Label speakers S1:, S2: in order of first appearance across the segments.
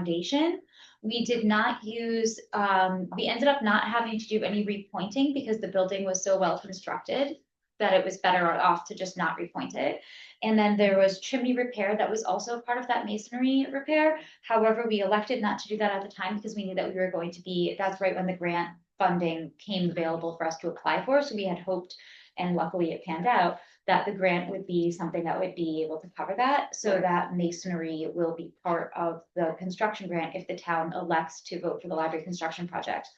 S1: foundation. We did not use, um, we ended up not having to do any repointing because the building was so well constructed that it was better off to just not repoint it. And then there was chimney repair that was also part of that masonry repair. However, we elected not to do that at the time because we knew that we were going to be, that's right when the grant funding came available for us to apply for. So we had hoped, and luckily it panned out, that the grant would be something that would be able to cover that. So that masonry will be part of the construction grant if the town elects to vote for the library construction project.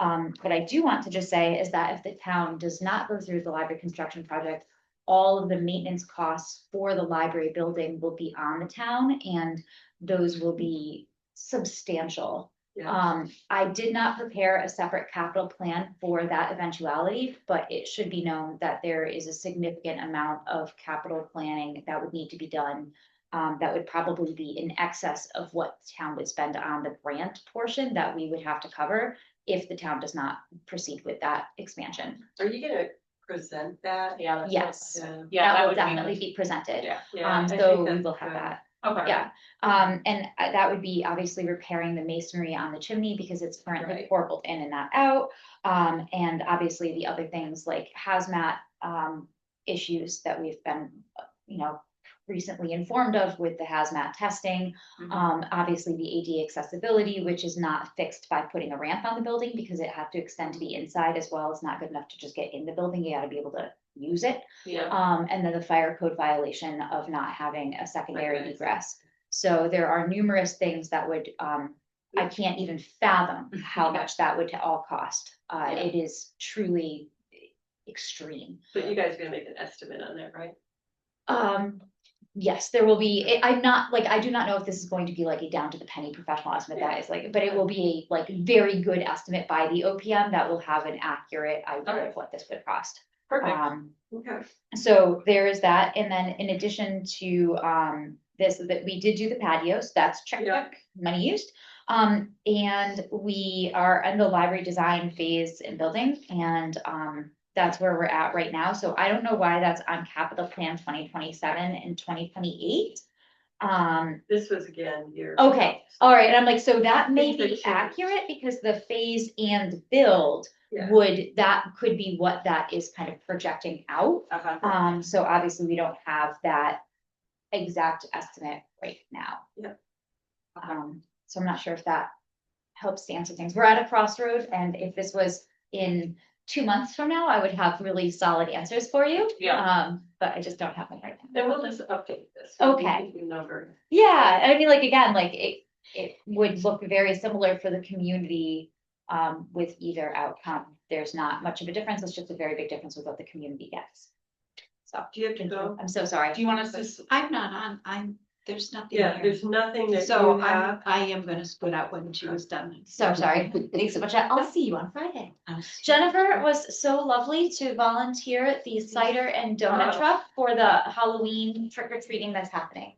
S1: Um, what I do want to just say is that if the town does not go through the library construction project, all of the maintenance costs for the library building will be on the town and those will be substantial.
S2: Yeah,
S1: Um, I did not prepare a separate capital plan for that eventuality, but it should be known that there is a significant amount of capital planning that would need to be done. Um, that would probably be in excess of what the town would spend on the grant portion that we would have to cover if the town does not proceed with that expansion.
S2: are you gonna present that?
S3: Yeah. that's what-
S1: Yes,
S2: Yeah.
S3: Yeah,
S1: that
S3: that
S1: will
S3: would be.
S1: definitely be presented.
S3: Yeah,
S2: Yeah,
S1: Um,
S2: I think
S1: so we
S2: that's
S1: will have
S2: good.
S1: that.
S3: okay.
S1: Yeah, um, and uh, that would be obviously repairing the masonry on the chimney because it's currently
S2: Right.
S1: corbelled in and not out. Um, and obviously the other things like hazmat, um, issues that we've been, uh, you know, recently informed of with the hazmat testing.
S3: Mhm.
S1: Um, obviously the AD accessibility, which is not fixed by putting a ramp on the building because it had to extend to the inside as well. It's not good enough to just get in the building. You gotta be able to use it.
S3: Yeah,
S1: Um, and then the fire code violation of not having a secondary
S2: Recognized.
S1: egress. So there are numerous things that would, um, I can't even fathom how
S3: Yeah.
S1: much that would to all cost. Uh,
S3: Yeah.
S1: it is truly extreme.
S2: But you guys are gonna make an estimate on that, right?
S1: Um, yes, there will be, I- I'm not, like, I do not know if this is going to be like a down to the penny professional estimate that is like, but it will be a like very good estimate by the OPM that will have an accurate idea of
S2: Alright.
S1: what this would cost.
S2: Perfect.
S1: Um,
S2: Okay.
S1: so there is that, and then in addition to um this, that we did do the patios, that's check,
S2: Yeah.
S1: check, money used. Um, and we are in the library design phase and building, and um that's where we're at right now, so I don't know why that's on capital plan twenty twenty-seven and twenty twenty-eight. Um,
S2: This was again your.
S1: okay, all right, and I'm like, so that may
S2: Things that
S1: be
S2: change.
S1: accurate because the phase and build
S2: Yeah.
S1: would, that could be what that is kind of projecting out.
S3: uh-huh,
S1: Um, so obviously we don't have that exact estimate right now.
S2: Yep.
S1: Um, so I'm not sure if that helps to answer things. We're at a crossroad and if this was in two months from now, I would have really solid answers for you.
S3: yeah,
S1: Um, but I just don't have them right now.
S2: Then we'll just update this. We'll give
S1: Okay.
S2: you the Number.
S1: Yeah, I mean, like, again, like, it, it would look very similar for the community, um, with either outcome. There's not much of a difference, it's just a very big difference with what the community gets. So,
S2: Do you have to go?
S1: I'm so sorry.
S3: do you want us to, s-
S4: I'm not on, I'm, there's nothing
S2: Yeah,
S4: here.
S2: there's nothing that you
S4: So I'm,
S2: have.
S4: I am gonna split out when she was done.
S1: So sorry. Thanks so much. I'll see you on Friday.
S4: I'm-
S1: Jennifer was so lovely to volunteer at the cider and donut
S2: Wow.
S1: truck for the Halloween trick or treating that's happening.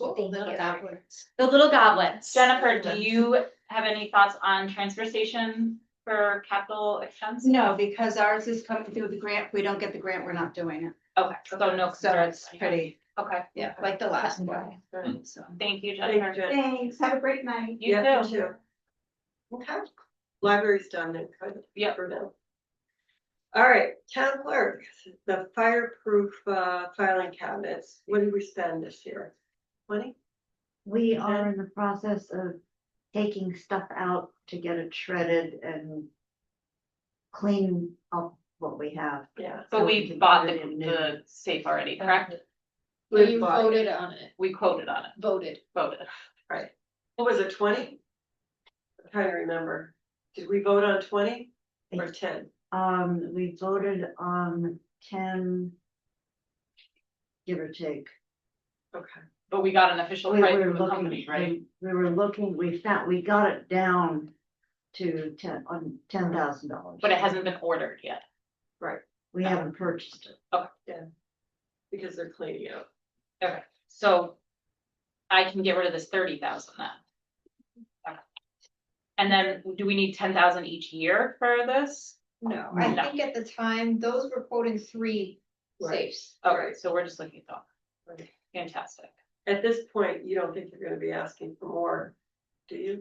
S4: Cool,
S1: Thank
S4: little
S1: you.
S4: goblins.
S1: The little goblins.
S3: Jennifer, do you have any thoughts on transfer station for capital expense?
S4: No, because ours is coming through the grant. If we don't get the grant, we're not doing it.
S3: Okay, so no
S4: So
S3: concerns.
S4: it's pretty,
S3: Okay,
S4: yeah, like the last one,
S1: Okay.
S2: Right.
S4: so.
S3: thank you,
S2: Thank you,
S3: Jennifer.
S2: Jen.
S4: Thanks, have a great night.
S3: You
S2: Yeah,
S3: too.
S2: Okay, library's done then, good.
S3: Yep.
S2: For now. All right, town clerk, the fireproof uh, filing cabinets, what did we spend this year? Twenty?
S5: We
S2: Okay.
S5: are in the process of taking stuff out to get it shredded and clean up what we have.
S2: Yeah.
S3: But
S5: So
S3: we
S5: can
S3: bought the,
S5: put it in new.
S3: the safe already, correct?
S2: We bought, it.
S4: on it,
S3: We quoted on it,
S4: voted.
S3: voted.
S2: right. What was it, twenty? I'm trying to remember. Did we vote on twenty or ten?
S5: Um, we voted on ten. Give or take.
S2: Okay,
S3: But we got an official
S5: We
S3: price
S5: were
S3: from the company,
S5: looking,
S3: right?
S5: we we were looking, we found, we got it down to ten, on ten thousand dollars.
S3: But it hasn't been ordered yet.
S5: We haven't purchased it.
S2: because they're cleaning out.
S3: Okay, so I can get rid of this thirty thousand then. Okay. And then do we need ten thousand each year for this?
S4: No,
S3: I No. think
S4: at the time, those were quoting three
S2: Right.
S3: Okay, so we're just looking at
S2: Right.
S3: that. Fantastic.
S2: At this point, you don't think you're gonna be asking for more do you?